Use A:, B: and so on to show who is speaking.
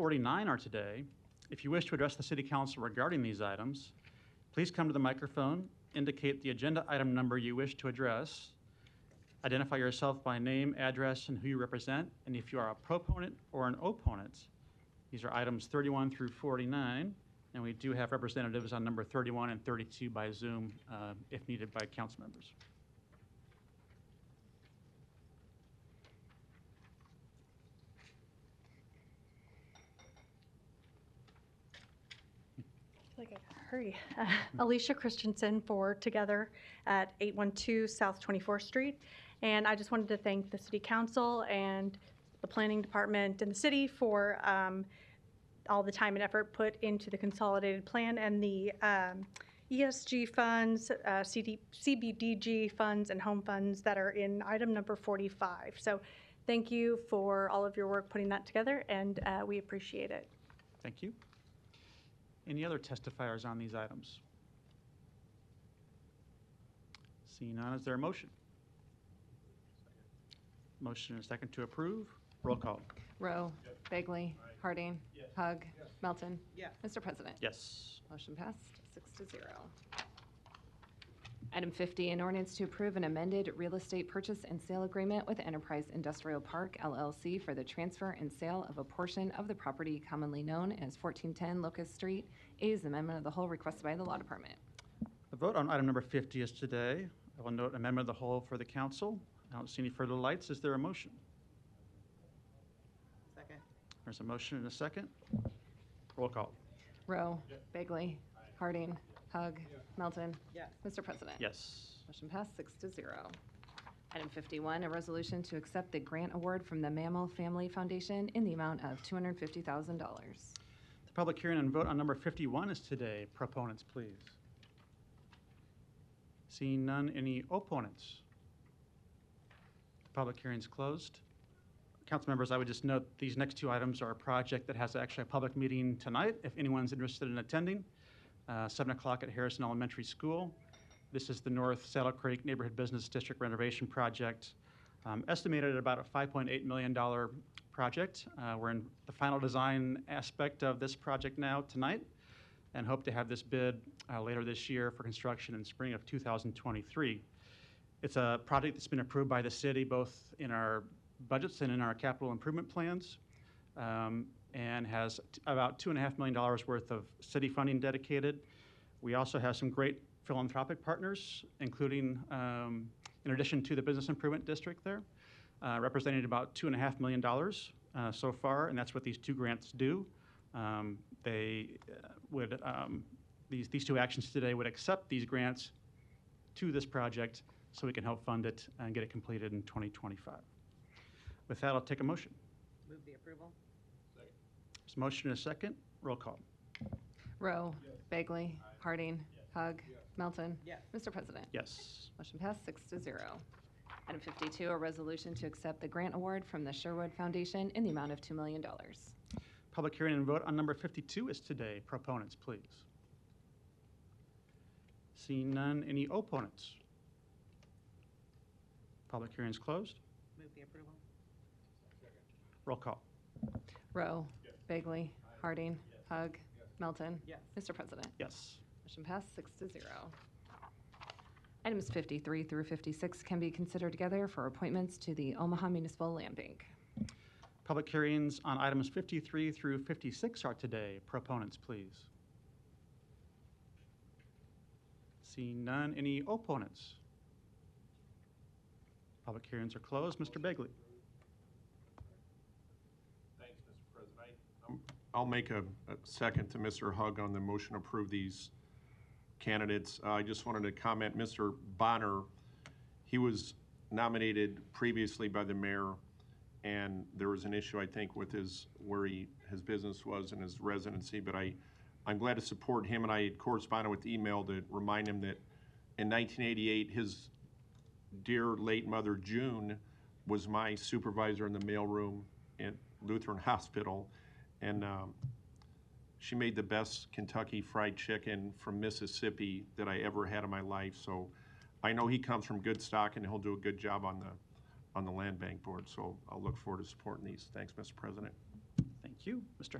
A: 49 are today. If you wish to address the city council regarding these items, please come to the microphone, indicate the agenda item number you wish to address, identify yourself by name, address, and who you represent, and if you are a proponent or an opponent. These are items 31 through 49, and we do have representatives on number 31 and 32 by Zoom uh, if needed by council members.
B: feel like I gotta hurry. Uh, Alicia Christensen for Together at 812 South 24th Street. And I just wanted to thank the city council and the planning department and the city for um, all the time and effort put into the consolidated plan and the um, ESG funds, uh, CD CBDG funds, and home funds that are in item number 45. So thank you for all of your work putting that together, and uh, we appreciate it.
A: Thank you. Any other testifiers on these items? Seeing none, is there a motion? Motion and a second to approve. Roll call.
C: Rowe. Bagley. Harding. Hug. Melton.
D: Yes.
C: Mr. President.
A: Yes.
C: Motion passed, six to zero. Item 50, an ordinance to approve an amended real estate purchase and sale agreement with Enterprise Industrial Park LLC for the transfer and sale of a portion of the property commonly known as 1410 Locust Street. A is amendment of the whole requested by the Law Department.
A: The vote on item number 50 is today. I will note amendment of the whole for the council. I don't see any further lights. Is there a motion?
D: Second.
A: There's a motion and a second. Roll call.
C: Rowe. Bagley. Harding. Hug. Melton.
D: Yes.
C: Mr. President.
A: Yes.
C: Motion passed, six to zero. Item 51, a resolution to accept the grant award from the Mammal Family Foundation in the amount of $250,000.
A: The public hearing and vote on number 51 is today. Proponents, please. Seeing none, any opponents? The public hearing's closed. Council members, I would just note, these next two items are a project that has actually a public meeting tonight, if anyone's interested in attending, uh, 7 o'clock at Harrison Elementary School. This is the North Saddle Creek Neighborhood Business District renovation project, um, estimated at about a $5.8 million project. Uh, We're in the final design aspect of this project now tonight and hope to have this bid uh, later this year for construction in spring of 2023. It's a project that's been approved by the city both in our budgets and in our capital improvement plans um, and has t- about $2.5 million worth of city funding dedicated. We also have some great philanthropic partners, including, um, in addition to the Business Improvement District there, uh, representing about $2.5 million uh, so far, and that's what these two grants do. Um, They uh, would, um, these, these two actions today would accept these grants to this project so we can help fund it and get it completed in 2025. With that, I'll take a motion.
D: Move the approval?
A: There's a motion and a second. Roll call.
C: Rowe. Bagley. Harding. Hug. Melton.
D: Yes.
C: Mr. President.
A: Yes.
C: Motion passed, six to zero. Item 52, a resolution to accept the grant award from the Sherwood Foundation in the amount of $2 million.
A: Public hearing and vote on number 52 is today. Proponents, please. Seeing none, any opponents? Public hearing is closed.
D: Move the approval?
A: Roll call.
C: Rowe. Bagley. Harding. Hug. Melton.
D: Yes.
C: Mr. President.
A: Yes.
C: Motion passed, six to zero. Items 53 through 56 can be considered together for appointments to the Omaha Municipal Land Bank.
A: Public hearings on items 53 through 56 are today. Proponents, please. Seeing none, any opponents? Public hearings are closed. Mr. Begley?
E: Thanks, Mr. President. I'll make a a second to Mr. Hug on the motion to approve these candidates. Uh, I just wanted to comment, Mr. Bonner, he was nominated previously by the mayor, and there was an issue, I think, with his, where he, his business was and his residency, but I, I'm glad to support him, and I had corresponded with email to remind him that in 1988, his dear late mother June was my supervisor in the mailroom at Lutheran Hospital, and um, she made the best Kentucky Fried Chicken from Mississippi that I ever had in my life. So I know he comes from good stock, and he'll do a good job on the on the land bank board. So I'll look forward to supporting these. Thanks, Mr. President.
A: Thank you. Mr.